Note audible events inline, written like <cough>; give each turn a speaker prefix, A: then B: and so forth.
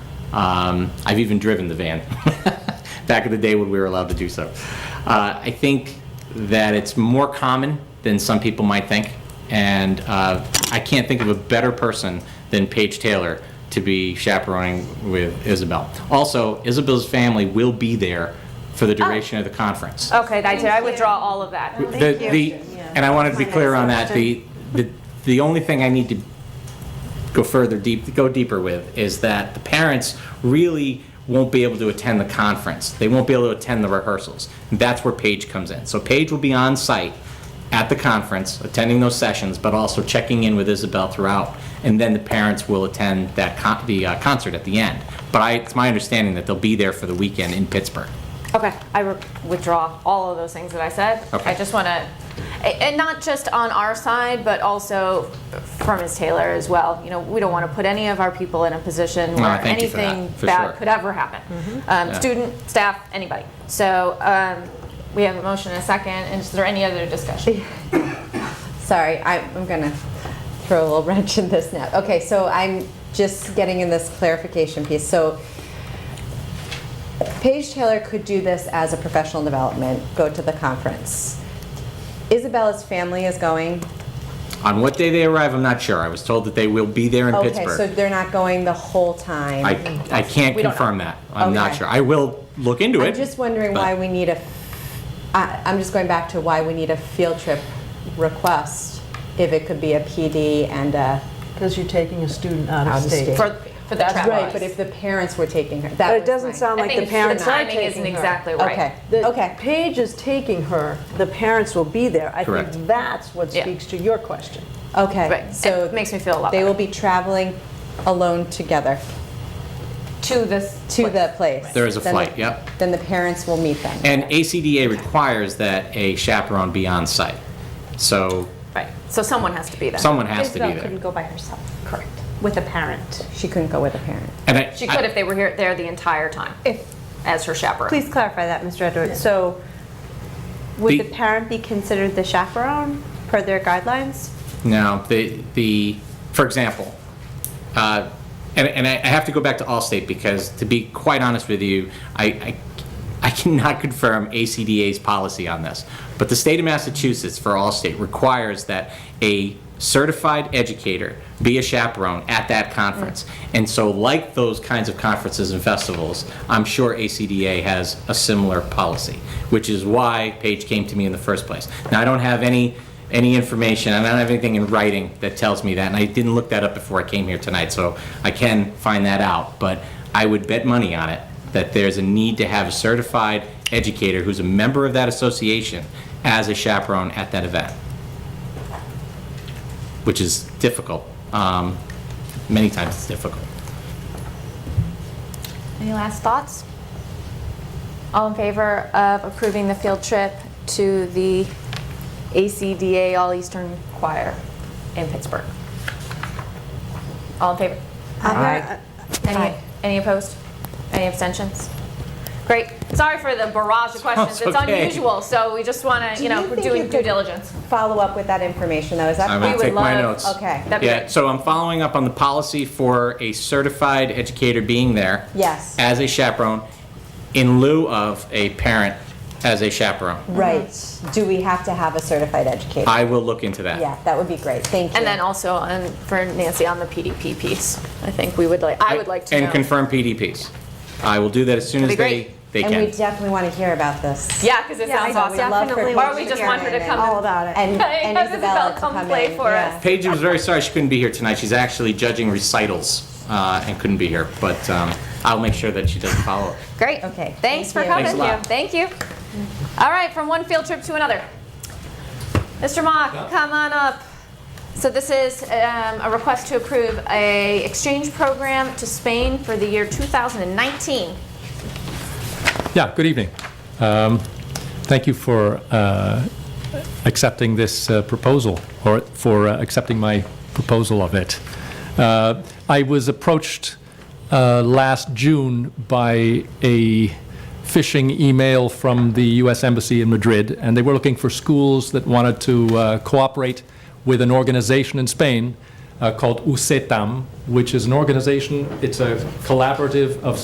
A: Um, I've even driven the van <laughs> back in the day when we were allowed to do so. Uh, I think that it's more common than some people might think, and uh, I can't think of a better person than Paige Taylor to be chaperoning with Isabel. Also, Isabel's family will be there for the duration of the conference.
B: Okay, I did, I withdraw all of that.
C: Oh.
A: The- the- And I wanted to be clear on that, the, the, the only thing I need to go further deep, go deeper with, is that the parents really won't be able to attend the conference. They won't be able to attend the rehearsals. That's where Paige comes in. So Paige will be on site at the conference, attending those sessions, but also checking in with Isabel throughout. And then the parents will attend that con, the uh, concert at the end. But I, it's my understanding that they'll be there for the weekend in Pittsburgh.
B: Okay, I re- withdraw all of those things that I said.
A: Okay.
B: I just want to, and not just on our side, but also from Ms. Taylor as well. You know, we don't want to put any of our people in a position
A: No,
B: where
A: thank you for that,
B: anything
A: for sure.
B: bad could ever happen.
C: Mm-hmm.
B: Um,
A: Yeah.
B: Student, staff, anybody. So um, we have a motion and a second, and is there any other discussion?
D: Sorry, I- I'm gonna throw a little <laughs> wrench in this now. Okay, so I'm just getting in this clarification piece. So Paige Taylor could do this as a professional development, go to the conference. Isabella's family is going.
A: On what day they arrive, I'm not sure. I was told that they will be there in
D: Okay,
A: Pittsburgh.
D: so they're not going the whole time.
A: I, I can't
B: We don't know.
A: confirm that. I'm not
D: Okay.
A: sure. I will look into it.
D: I'm just wondering why we need a, I- I'm just going back to why we need a field trip request if it could be a PD and a,
C: Because you're taking a student out
D: Out
C: of
D: of
C: state.
D: state.
B: For, for the travel.
D: right, but if the parents were taking her, that
C: But it
D: was
C: doesn't
D: my-
C: sound
B: I
C: like the
B: think
C: parents
B: the
C: are
B: timing
C: taking
B: isn't
C: her.
B: exactly right.
D: Okay,
C: The-
D: okay.
C: Paige is taking her, the parents will be there. I
A: Correct.
C: think that's what
B: Yeah.
C: speaks to your question.
D: Okay,
B: Right,
D: so.
B: it makes me feel a lot
D: They will
B: better.
D: be traveling alone together
B: To this.
D: to the place.
A: There is a
D: Then the-
A: flight, yep.
D: Then the parents will meet them.
A: And ACDA requires that a chaperone be on site. So
B: Right, so someone has to be there.
A: someone has to be
E: Isabel couldn't
A: there.
E: go by herself. Correct. With a parent.
D: She couldn't go with a parent.
A: And I-
B: She
A: I-
B: could if they were here, there the entire time,
E: If,
B: as her chaperone.
E: please clarify that, Mr. Edwards. So would
A: The-
E: the parent be considered the chaperone per their guidelines?
A: No, the, the, for example, uh, and, and I I have to go back to Allstate because to be quite honest with you, I, I, I cannot <laughs> confirm ACDA's policy on this. But the state of Massachusetts for Allstate requires that a certified educator be a chaperone at that conference. And so like those kinds of conferences and festivals, I'm sure ACDA has a similar policy, which is why Paige came to me in the first place. Now, I don't have any any information, and I don't have anything in writing that tells me that, and I didn't look that up before I came here tonight, so I can find that out, but I would bet money on it, that there's a need to have a certified educator who's a member of that association as a chaperone at that event, which is difficult. Um, Many times it's difficult.
B: Any last thoughts? All in favor of approving the field trip to the ACDA All Eastern Choir in Pittsburgh? All in favor?
D: Aye.
B: Any, any opposed? Any abstentions? Great. Sorry for the barrage of questions.
A: Sounds
B: It's
A: okay.
B: unusual, so we just want to, you know,
D: you
B: we're
D: think
B: doing
D: you
B: due
D: could-
B: diligence.
D: Follow up with that information though, is that
A: I'm
D: possible?
A: gonna take my
B: love-
A: notes.
D: Okay.
B: That'd be
A: Yeah,
B: great.
A: so I'm following up on the policy for a certified educator being there.
D: Yes.
A: As a chaperone, in lieu of a parent as a chaperone.
D: Right, do we have to have a certified educator?
A: I will look into that.
D: Yeah, that would be great, thank you.
B: And then also on, for Nancy on the PDP piece, I think we would like, I would like to know.
A: And confirm PDPs. I will do that as soon as
B: That'd be
A: they,
B: great.
A: they
D: And we
A: can.
D: definitely want to hear about this.
B: Yeah, because it
E: Yeah,
B: sounds
E: I
B: awesome.
E: would love for Definitely
B: Or
E: want
B: we
E: to
B: just
E: hear
B: want her to
D: it. Oh,
B: come.
E: All
B: and-
E: about it.
D: And,
B: <laughs>
D: and
B: Have Isabella
D: Isabella to
B: come
D: come
B: play
D: in,
B: for
D: yeah.
B: us.
A: Paige was very sorry she couldn't be here tonight. She's actually judging recitals uh, and couldn't be here, but um, I'll make sure that she does follow.
B: Great.
D: Okay,
B: Thanks
D: thank
B: for
D: you.
B: coming.
A: Thanks a lot.
B: Thank you. All right, from one field trip to another. Mr. Mock, come on up. So this is um, a request to approve a exchange program to Spain for the year 2019.
F: Yeah, good evening. Um, Thank you for uh, accepting this uh, proposal, or for uh, accepting my proposal of it. Uh, I was approached uh, last June by a phishing email from the U.S. Embassy in Madrid, and they were looking for schools that wanted to uh, cooperate with an organization in Spain uh, called USETAM, which is an organization, it's a collaborative of